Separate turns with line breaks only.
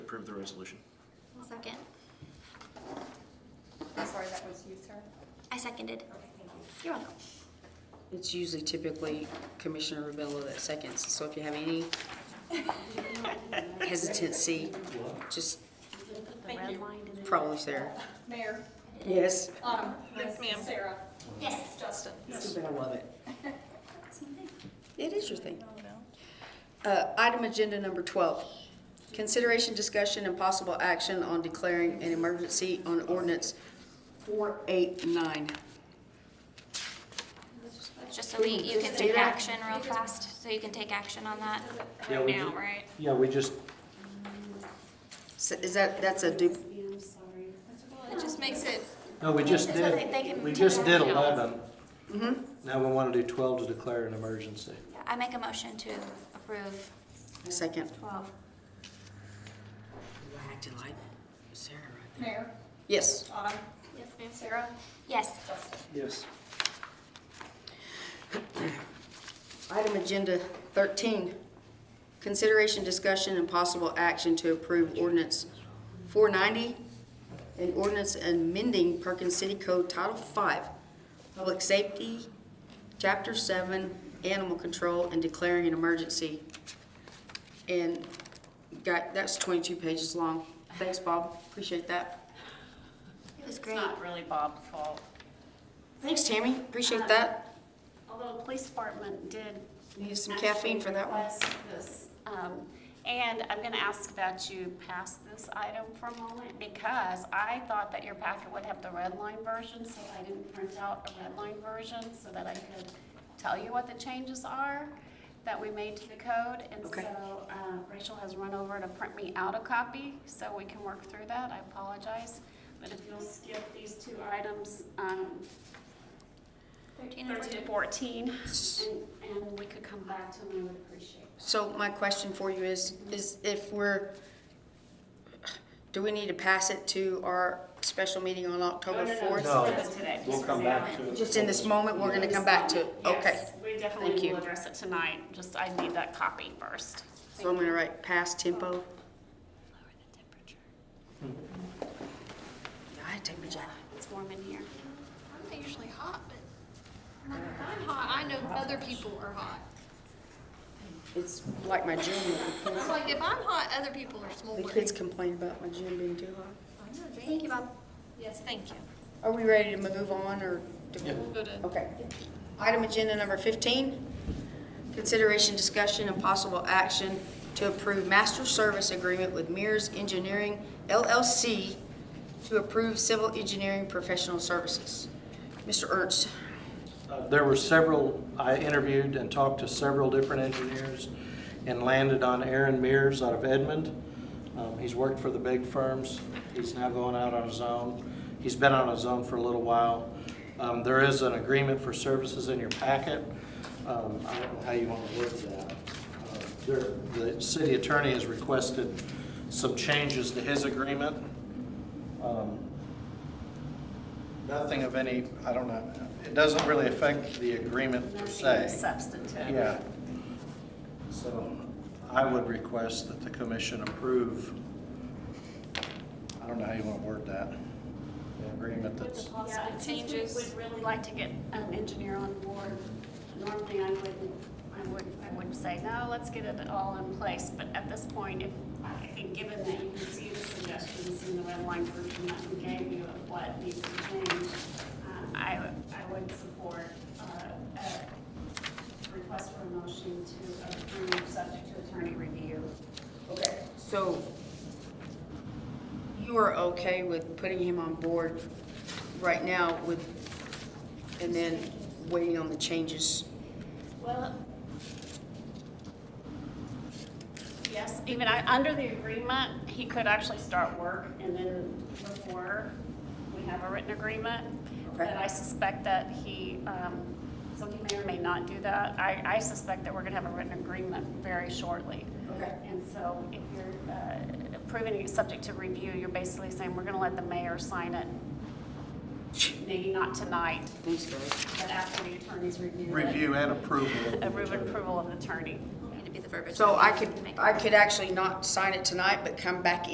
approve the resolution.
I'll second.
I'm sorry, that was you, sir?
I seconded. You're welcome.
It's usually typically Commissioner Rubello that seconds, so if you have any hesitancy, just
Thank you.
probably Sarah.
Mayor,
Yes.
Autumn.
Yes, ma'am.
Sarah.
Yes.
Justin.
I love it. It is your thing. Uh, Item agenda number 12, consideration, discussion, and possible action on declaring an emergency on ordinance 489.
Just so we, you can
Do
take
that.
action real fast, so you can take action on that.
Yeah, we
now,
ju-
right?
Yeah, we just,
So Is that, that's a dupe?
It just makes it.
no, we just
So they- they
did,
can
we
take
just
it
did
out.
eleven.
Mm-hmm.
Now we want to do twelve to declare an emergency.
I make a motion to approve
Second.
twelve.
Acting like Sarah right there.
Mayor,
Yes.
Autumn,
Yes,
Sarah,
Yes.
Justin.
Yes.
Item agenda 13, consideration, discussion, and possible action to approve ordinance 490, an ordinance amending Perkins City Code Title 5, Public Safety, Chapter 7, Animal Control, and declaring an emergency. And got, that's 22 pages long. Thanks, Bob. Appreciate that.
It was
It's
great.
not really Bob's fault.
Thanks, Tammy. Appreciate that.
Although the police department did.
Need some caffeine for that one.
Request this, um, and I'm gonna ask that you pass this item for a moment, because I thought that your packet would have the red line version, so I didn't print out a red line version, so that I could tell you what the changes are that we made to the code, and
Okay.
so, uh, Rachel has run over to print me out a copy, so we can work through that, I apologize. But if you'll skip these two items, um,
Thirteen and
13
fourteen.
to 14, and, and we could come back to them, I would appreciate it.
So my question for you is, is if we're, do we need to pass it to our special meeting on October fourth?
No.
Just today.
We'll come back to it.
Just in this moment, we're gonna come back to it, okay.
Yes, We
Thank
definitely
you.
will address it tonight, just I need that copy first.
So I'm gonna write pass tempo.
Lower the temperature.
I take my jacket.
It's warm in here.
I'm usually hot, but I'm hot. I know other people are hot.
It's like my gym, the
It's
kids-
like if I'm hot, other people are
the
smoldering.
kids complain about my gym being too hot.
Thank you, Bob.
Yes, thank you.
Are we ready to move on or? do we-
We'll go to
Okay. Item agenda number 15, consideration, discussion, and possible action to approve master service agreement with Mears Engineering LLC to approve civil engineering professional services. Mr. Ernst,
Uh, There were several, I interviewed and talked to several different engineers and landed on Aaron Mears out of Edmond. Um, He's worked for the big firms. He's now going out on his own. He's been on his own for a little while. Um, There is an agreement for services in your packet. Um, I don't know how you want to word that. Uh, there- The city attorney has requested some changes to his agreement. Um, Nothing of any, I don't know, it doesn't really affect the agreement per
Nothing
se.
substantive.
Yeah. So I would request that the commission approve, I don't know how you want to word that, the agreement
With
that's,
the possible
just
changes.
would-
Would really like to get an engineer on board. Normally, I wouldn't, I would, I would say, no, let's get it all in place, but at this point, if, I think, given that you can see the suggestions in the red line version that we gave you of what needs to change, uh, I, would- I would support, uh, a request for a motion to approve, subject to attorney review.
so you are okay with putting him on board right now with, and then waiting on the changes?
Well, yes, even I, under the agreement, he could actually start work and then before we have a written agreement.
Okay.
But I suspect that he, um, so he may or may not do that. I, I suspect that we're gonna have a written agreement very shortly.
Okay.
And so if you're uh, approving it subject to review, you're basically saying, we're gonna let the mayor sign it. Maybe not tonight,
Thanks, guys.
but after the attorneys review it.
review and approval.
A Approve approval of the attorney.
Need to be the verbiage.
So I could,
Make-
I could actually not sign it tonight, but come back